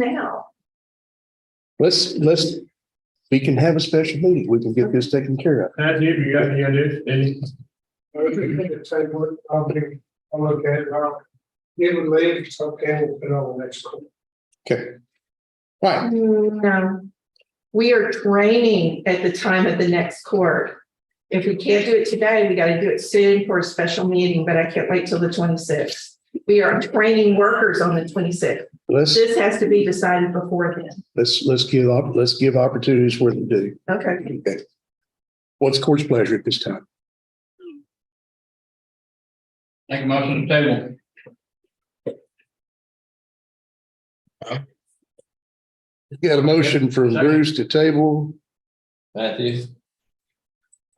now. Let's, let's, we can have a special meeting. We can get this taken care of. That's if you got any ideas, any? I was just thinking, say, what, I'll be, I'll look at it, I'll, it would leave, it's okay, we'll put it on the next one. All right. No. We are training at the time of the next court. If we can't do it today, we gotta do it soon for a special meeting, but I can't wait till the twenty-sixth. We are training workers on the twenty-sixth. Let's, This has to be decided before then. let's, let's give, op- let's give opportunities where they do. Okay. Okay. What's court's pleasure at this time? Make a motion to table. We Got a motion from Bruce to table. Matthews.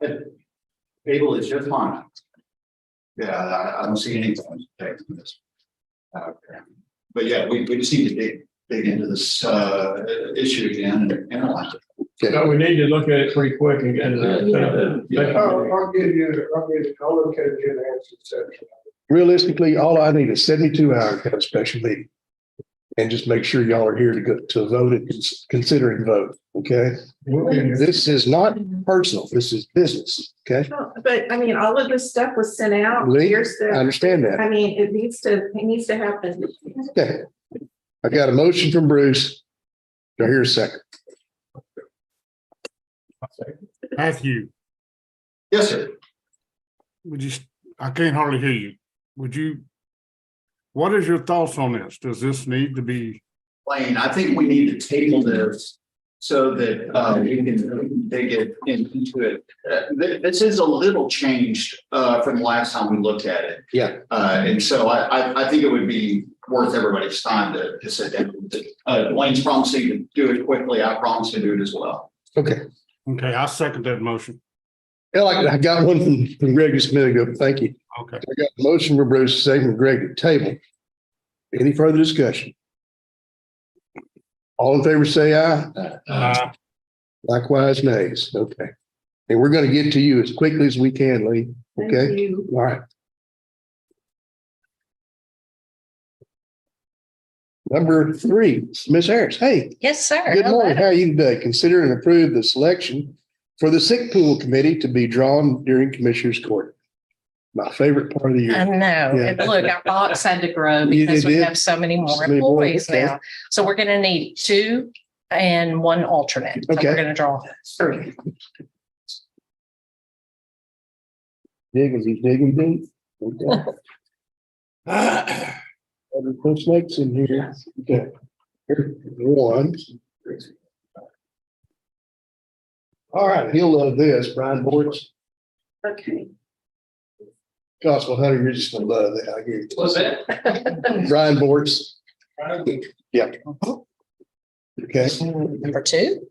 Abel, it's your time. Yeah, I, I don't see anything to take from this. Uh, But yeah, we, we just need to dig, dig into this, uh, issue again and analyze it. So we need to look at it pretty quick and get it. I'll, I'll give you, I'll give, I'll look at it, give an answer, etc. Realistically, all I need is seventy-two hours to have a special meeting. And just make sure y'all are here to go to vote and cons- consider and vote. Okay? This is not personal. This is business. Okay? Oh, But I mean, all of this stuff was sent out. Lee, Here's I the, understand that. I mean, it needs to, it needs to happen. Okay. I got a motion from Bruce. Do I hear a second? Matthew, Yes, sir. would you, I can't hardly hear you. Would you? What is your thoughts on this? Does this need to be, Lane, I think we need to table this so that, uh, we can dig it in- into it. Uh, thi- this is a little changed, uh, from the last time we looked at it. Yeah. Uh, and so I, I, I think it would be worth everybody's time to, to sit down. with it. Uh, Lane's promising to do it quickly. I promise to do it as well. Okay. okay, I second that motion. Yeah, like, I got one from from Greg just a minute ago. Thank you. Okay, I got a motion from Bruce, second from Greg to table. Any further discussion? All in favor, say aye. uh, Likewise, nays. Okay. And we're going to get to you as quickly as we can, Lee. Thank Okay? you. All right. Number three, Ms. Harris. Hey, Yes, sir. Good morning. Hello. How are you today? Consider and approve the selection for the sick pool committee to be drawn during Commissioners Court. My favorite part of the I year. know. Yeah. And look, our box had to grow You- because it we did? have so many So more many more, employees okay. now. So we're going to need two and one alternate. So Okay. we're going to draw three. Digging, he's digging deep. Okay. Other folks next in here. Okay. Here's One. All right, he'll love this. Brian Boyd's Okay. Gospel Hunter, you're just gonna love that. I hear you. What's that? Brian Boyd's. Yeah. Okay. Number two.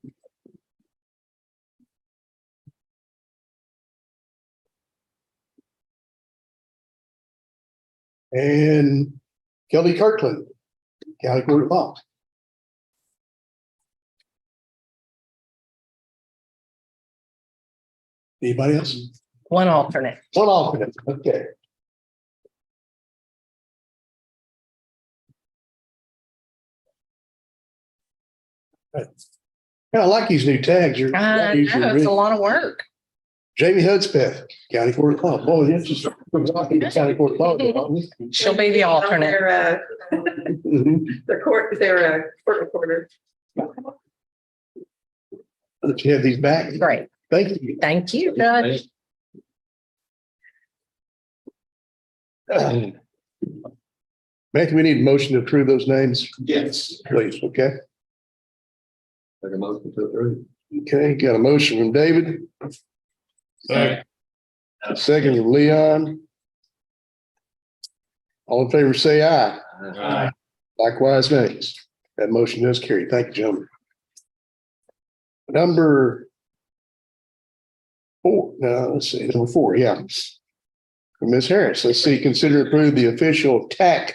And Kelly Kirkland, County Court of Law. Anybody else? One alternate. One alternate, okay. Yeah, I like these new tags. You're- I these are know it's really- a lot of work. Jamie Hudspeth, County Court of Law. Boy, that's just from talking to County Court of Law. Mm-hmm. aren't we? She'll be the alternate. They're uh, Mhm. they're court, they're a court reporter. Let you have these back. Great. Thank you. Thank you, Judge. Matthew, we need a motion to approve those names, Yes. please, okay? Like a motion to approve. Okay, got a motion from David, Second. a second from Leon. All in favor, say aye. Aye. Likewise, nays. That motion does carry. Thank you, gentlemen. Number four, no, let's see, number four, yeah. From Ms. Harris, let's see, consider approve the official TAC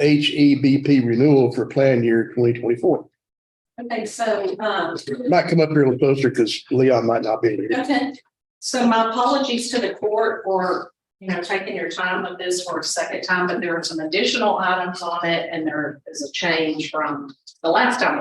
HEBP E renewal for plan year twenty twenty-four. Okay, so, um, Might come up here a little closer because Leon might not be here. okay, so my apologies to the court for you know, taking your time with this for a second time, but there are some additional items on it and there is a change from the last time